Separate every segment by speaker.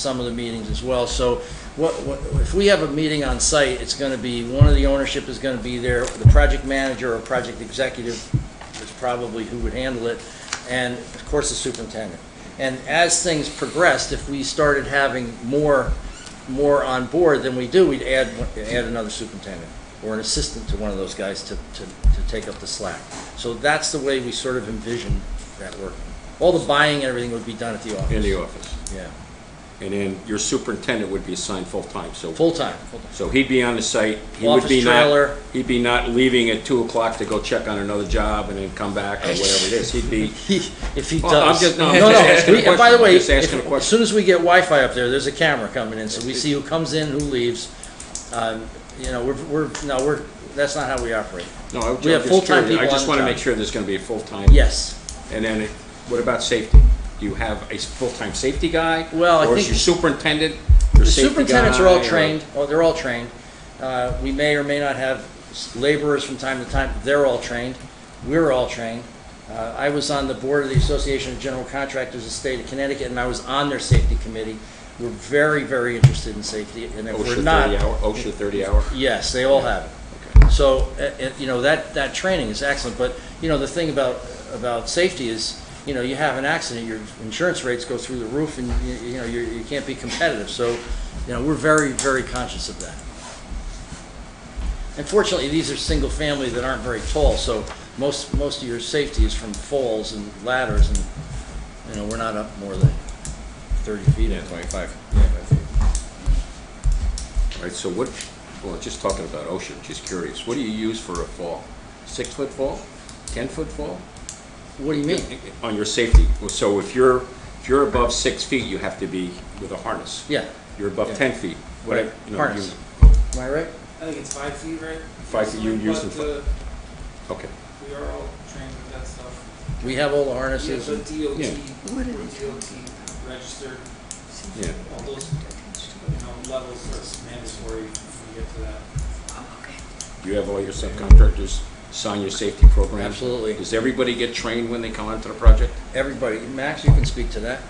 Speaker 1: some of the meetings as well. So what, what, if we have a meeting on site, it's gonna be, one of the ownership is gonna be there, the project manager or project executive is probably who would handle it, and of course the superintendent. And as things progressed, if we started having more, more on board than we do, we'd add, add another superintendent or an assistant to one of those guys to, to, to take up the slack. So that's the way we sort of envision that working. All the buying and everything would be done at the office.
Speaker 2: in the office.
Speaker 1: Yeah,
Speaker 2: And then your superintendent would be assigned full-time, so,
Speaker 1: full-time, full-time.
Speaker 2: so he'd be on the site. He would be
Speaker 1: Office
Speaker 2: not-
Speaker 1: trailer.
Speaker 2: He'd be not leaving at two o'clock to go check on another job and then come back or whatever it is. He'd be,
Speaker 1: He- If he
Speaker 2: Well, I'm
Speaker 1: does.
Speaker 2: just- no, I'm just asking a
Speaker 1: we- and By the
Speaker 2: question.
Speaker 1: way,
Speaker 2: I'm just asking a
Speaker 1: if- as
Speaker 2: question.
Speaker 1: soon as we get Wi-Fi up there, there's a camera coming in, so we see who comes in, who leaves. Um, You know, we're, we're, no, we're, that's not how we operate.
Speaker 2: no, I'm
Speaker 1: We have
Speaker 2: just
Speaker 1: full-time
Speaker 2: curious. I
Speaker 1: people
Speaker 2: just
Speaker 1: on
Speaker 2: want
Speaker 1: the
Speaker 2: to make
Speaker 1: job.
Speaker 2: sure there's going to be a full-time.
Speaker 1: Yes.
Speaker 2: And then, it- what about safety? Do you have a s- full-time safety guy?
Speaker 1: Well, I
Speaker 2: Or is
Speaker 1: think-
Speaker 2: your superintendent, your
Speaker 1: The
Speaker 2: safety guy?
Speaker 1: superintendents are all
Speaker 2: or-
Speaker 1: trained, oh, they're all trained. Uh, We may or may not have s- laborers from time to time, they're all trained, we're all trained. Uh, I was on the board of the Association of General Contractors of the State of Connecticut, and I was on their safety committee. We're very, very interested in safety, and if we're
Speaker 2: OSHA
Speaker 1: not,
Speaker 2: 30 hour, OSHA 30 hour.
Speaker 1: Yes, they all have
Speaker 2: Okay.
Speaker 1: it. So, uh, uh, you know, that, that training is excellent, but, you know, the thing about, about safety is, you know, you have an accident, your insurance rates go through the roof and, you- you know, you, you can't be competitive. So, you know, we're very, very conscious of that. Unfortunately, these are single family that aren't very tall, so most, most of your safety is from falls and ladders and, you know, we're not up more than thirty feet.
Speaker 3: Yeah, twenty-five.
Speaker 2: All right, so what, well, just talking about OSHA, just curious, what do you use for a fall? Six-foot fall? Ten-foot fall?
Speaker 1: What do you mean?
Speaker 2: On your safety, so if you're, if you're above six feet, you have to be with a harness.
Speaker 1: Yeah,
Speaker 2: You're above
Speaker 1: Yeah.
Speaker 2: ten feet, whatever, you know. you-
Speaker 1: Harness. am I right?
Speaker 4: I think it's five feet, right?
Speaker 2: Five feet, you use
Speaker 4: But,
Speaker 2: them
Speaker 4: uh,
Speaker 2: Okay,
Speaker 4: We are all trained with that stuff.
Speaker 1: We have all the
Speaker 4: Yeah,
Speaker 1: harnesses.
Speaker 4: but
Speaker 1: and-
Speaker 4: DOT,
Speaker 2: Yeah.
Speaker 5: What is it?
Speaker 4: DOT registered,
Speaker 2: yeah.
Speaker 4: all those, you know, levels are mandatory when you get to that.
Speaker 2: You have all your subcontractors sign your safety program.
Speaker 1: Absolutely.
Speaker 2: Does everybody get trained when they come onto the project?
Speaker 1: Everybody, Max, you can speak to that.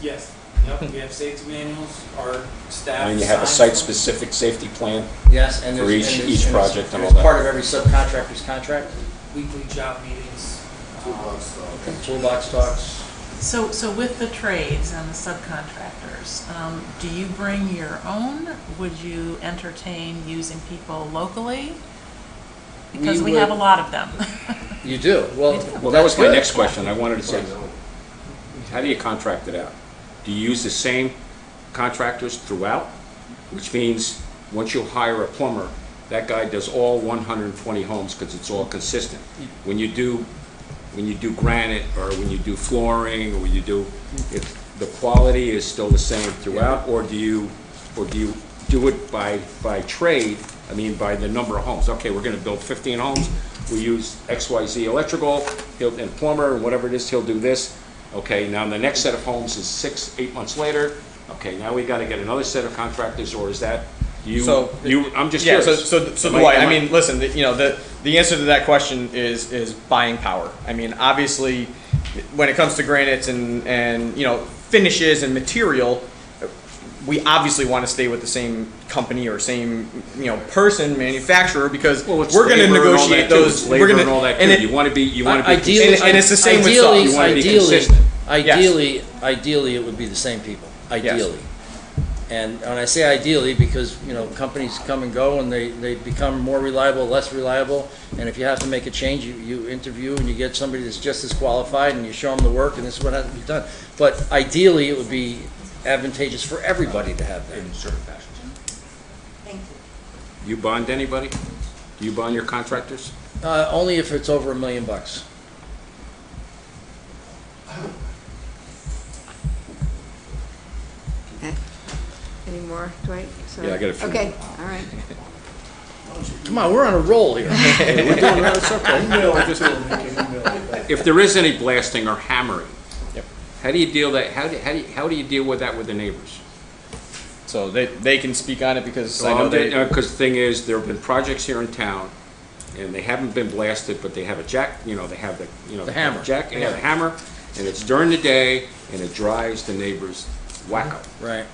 Speaker 4: Yes, yep, we have safety manuals, our staff.
Speaker 2: And you have a
Speaker 4: signs them.
Speaker 2: site-specific safety plan?
Speaker 1: Yes, and
Speaker 2: For
Speaker 1: there's.
Speaker 2: each-
Speaker 1: and
Speaker 2: each
Speaker 1: it's- it's-
Speaker 2: project and
Speaker 1: it's
Speaker 2: all that.
Speaker 1: Part of every subcontractor's contract,
Speaker 4: Weekly job meetings. um,
Speaker 3: Five.
Speaker 1: toolbox talks.
Speaker 5: So, so with the trades and the subcontractors, um, do you bring your own? Would you entertain using people locally? Because
Speaker 1: We
Speaker 5: we have a
Speaker 1: would-
Speaker 5: lot of them.
Speaker 1: You do, well.
Speaker 2: Well, that was my
Speaker 1: that's
Speaker 2: next
Speaker 1: good.
Speaker 2: question, I wanted to say, how do you contract it out? Do you use the same contractors throughout? Which means, once you hire a plumber, that guy does all 120 homes, because it's all consistent. When you do, when you do granite, or when you do flooring, or when you do, if the quality is still the same throughout, or do you, or do you do it by, by trade, I mean, by the number of homes? Okay, we're gonna build 15 homes, we use XYZ electrical, he'll, and plumber, and whatever it is, he'll do this. Okay, now the next set of homes is six, eight months later, okay, now we gotta get another set of contractors, or is that, you,
Speaker 3: So-
Speaker 2: you, I'm just
Speaker 3: Yeah,
Speaker 2: curious.
Speaker 3: so, so, so
Speaker 2: Am
Speaker 3: Dwight, I
Speaker 2: am
Speaker 3: mean, listen, the- you know, the, the answer to that question is, is buying power. I mean, obviously, when it comes to granites and, and, you know, finishes and material, we obviously want to stay with the same company or same, you know, person, manufacturer, because
Speaker 2: Well,
Speaker 3: we're
Speaker 2: it's
Speaker 3: gonna
Speaker 2: labor and all
Speaker 3: negotiate
Speaker 2: that, too.
Speaker 3: those,
Speaker 2: It's
Speaker 3: we're
Speaker 2: labor
Speaker 3: gonna.
Speaker 2: and all that,
Speaker 3: and
Speaker 2: too.
Speaker 3: it-
Speaker 2: you wanna be, you wanna be.
Speaker 1: Ideally,
Speaker 3: and it's the same with
Speaker 1: ideally,
Speaker 3: salt.
Speaker 2: You wanna be
Speaker 1: ideally-
Speaker 2: consistent.
Speaker 1: Ideally, ideally, it would be the same people, ideally. And when I say ideally, because, you know, companies come and go and they, they become more reliable, less reliable. And if you have to make a change, you, you interview and you get somebody that's just as qualified and you show them the work and this is what has to be done. But ideally, it would be advantageous for everybody to have that.
Speaker 2: in certain fashions. Thank you. You bond anybody? Do you bond your contractors?
Speaker 1: Uh, only if it's over a million bucks.
Speaker 6: Okay. Any more, Dwight? Sorry.
Speaker 2: Yeah, I got a few
Speaker 6: Okay, all right.
Speaker 1: Come on, we're on a roll here.
Speaker 2: If there is any blasting or hammering,
Speaker 3: Yep.
Speaker 2: how do you deal that, how do, how do, you- how do you deal with that with the neighbors?
Speaker 3: So they, they can speak on it because I know they,
Speaker 2: Because uh, the thing is, there have been projects here in town, and they haven't been blasted, but they have a jack, you know, they have the, you know.
Speaker 1: The
Speaker 2: they have a
Speaker 1: hammer.
Speaker 2: Jack, and a hammer, and it's during the day, and it drives the neighbors
Speaker 7: wacko.
Speaker 2: Right.